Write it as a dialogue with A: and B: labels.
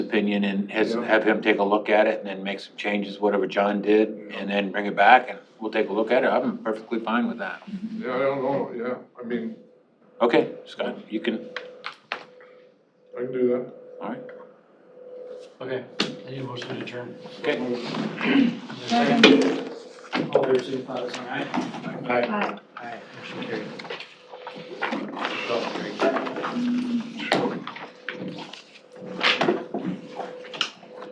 A: opinion and has,
B: Yeah.
A: have him take a look at it and then make some changes, whatever John did, and then bring it back and we'll take a look at it. I'm perfectly fine with that.
B: Yeah, I don't know, yeah, I mean,
A: Okay, Scott, you can,
B: I can do that.
A: all right,
C: Okay, I need a motion to adjourn.
A: okay.
C: Is there a Second. All fair, signify by saying aye.
D: Aye.
C: Aye. Motion